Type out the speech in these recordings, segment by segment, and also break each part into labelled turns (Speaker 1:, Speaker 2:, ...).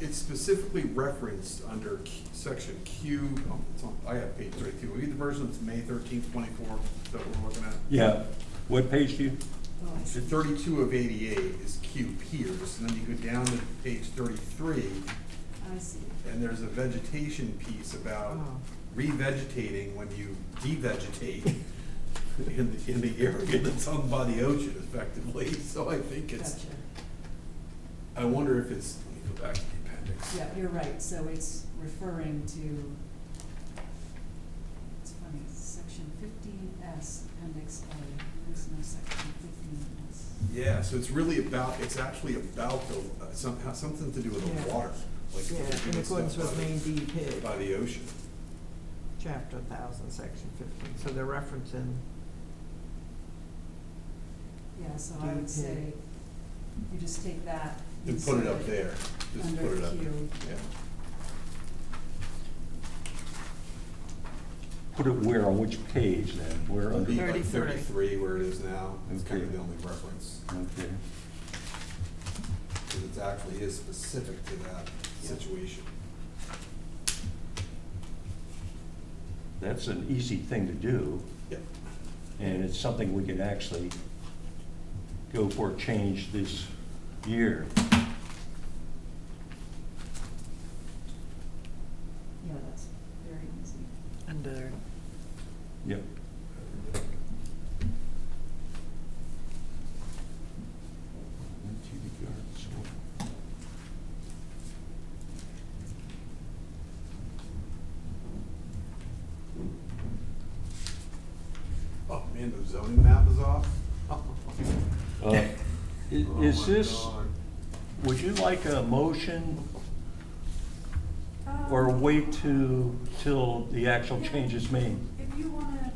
Speaker 1: it's specifically referenced under Q- section Q, oh, it's on, I have page thirty-two, we need the version that's May thirteenth, twenty-four, that we're looking at.
Speaker 2: Yeah, what page do you,
Speaker 3: Oh,
Speaker 1: So Thirty-two of eighty-eight is Q piers, and then you go down to page thirty-three,
Speaker 3: I see.
Speaker 1: and there's a vegetation piece about
Speaker 3: Oh.
Speaker 1: revegetating when you devegetate in the, in the area that's owned by the ocean effectively, so I think
Speaker 3: Gotcha.
Speaker 1: it's, I wonder if it's, let me go back to the appendix.
Speaker 3: Yeah, you're right, so it's referring to, it's funny, section fifteen S, appendix A, there is no section fifteen S.
Speaker 1: Yeah, so it's really about, it's actually about the, uh, somehow, something to do with the
Speaker 4: Yeah.
Speaker 1: water, like.
Speaker 4: Yeah,
Speaker 1: they're
Speaker 4: in
Speaker 1: doing
Speaker 4: accordance
Speaker 1: stuff
Speaker 4: with
Speaker 1: by the-
Speaker 4: Maine DEP,
Speaker 1: By the ocean.
Speaker 4: chapter thousand, section fifteen, so they're referencing,
Speaker 3: Yeah, so I would say, you just take that.
Speaker 1: And put it up
Speaker 3: insert
Speaker 1: there, just put it up,
Speaker 3: Under Q.
Speaker 1: yeah.
Speaker 2: put it where, on which page then, where
Speaker 1: It'll
Speaker 2: under?
Speaker 1: be like
Speaker 4: 33.
Speaker 1: thirty-three where it is now, it's kind of
Speaker 2: Okay.
Speaker 1: the only reference,
Speaker 2: Okay,
Speaker 1: because it actually is specific to that situation.
Speaker 2: that's an easy thing to do,
Speaker 1: Yeah.
Speaker 2: and it's something we could actually go for change this year.
Speaker 3: Yeah, that's very easy.
Speaker 5: Under,
Speaker 2: Yep,
Speaker 1: Oh, man, the zoning map is off.
Speaker 2: Uh, i- Is
Speaker 1: Oh my
Speaker 2: this,
Speaker 1: God.
Speaker 2: would you like a motion or wait to, till the actual change is made?
Speaker 3: If you wanna,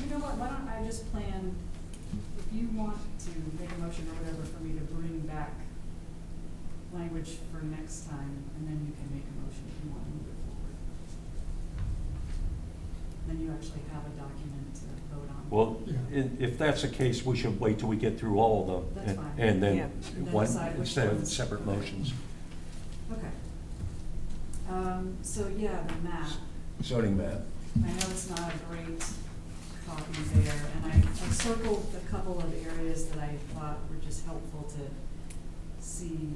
Speaker 3: you know what, why don't I just plan, if you want to make a motion or whatever for me to bring back language for next time, and then you can make a motion if you want to move it forward. Then you actually have a document to vote on.
Speaker 2: Well, i- if that's the case, we should wait till we get through all of them.
Speaker 3: That's
Speaker 2: and-
Speaker 3: fine.
Speaker 2: And
Speaker 4: Yeah.
Speaker 2: then,
Speaker 3: And then
Speaker 2: one,
Speaker 3: decide which
Speaker 2: instead of
Speaker 3: ones.
Speaker 2: separate motions.
Speaker 3: Okay. Um, so yeah, the map.
Speaker 2: Zoning map.
Speaker 3: I know it's not a great copy there, and I, I circled a couple of areas that I thought were just helpful to see.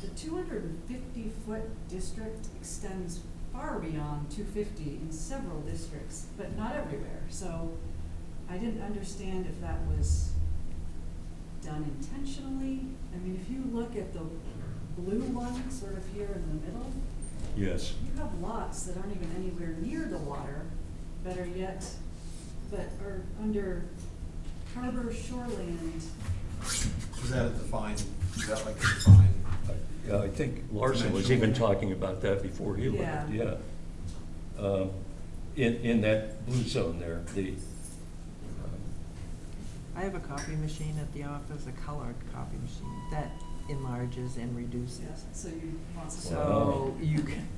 Speaker 3: The two hundred and fifty foot district extends far beyond two fifty in several districts, but not everywhere, so I didn't understand if that was done intentionally. I mean, if you look at the blue one, sort of here in the middle,
Speaker 2: Yes.
Speaker 3: you have lots that aren't even anywhere near the water, better yet, but are under harbor shoreland.
Speaker 1: Is that a defined, is that like a defined?
Speaker 2: Yeah, I think Larson was
Speaker 1: Dimensional.
Speaker 2: even talking about that before he left, yeah.
Speaker 3: Yeah.
Speaker 2: Um, In, in that blue zone there, the, uh,
Speaker 4: I have a copy machine at the office, a colored copy machine, that enlarges and reduces.
Speaker 3: So you want some.
Speaker 2: Wow.
Speaker 4: So you can,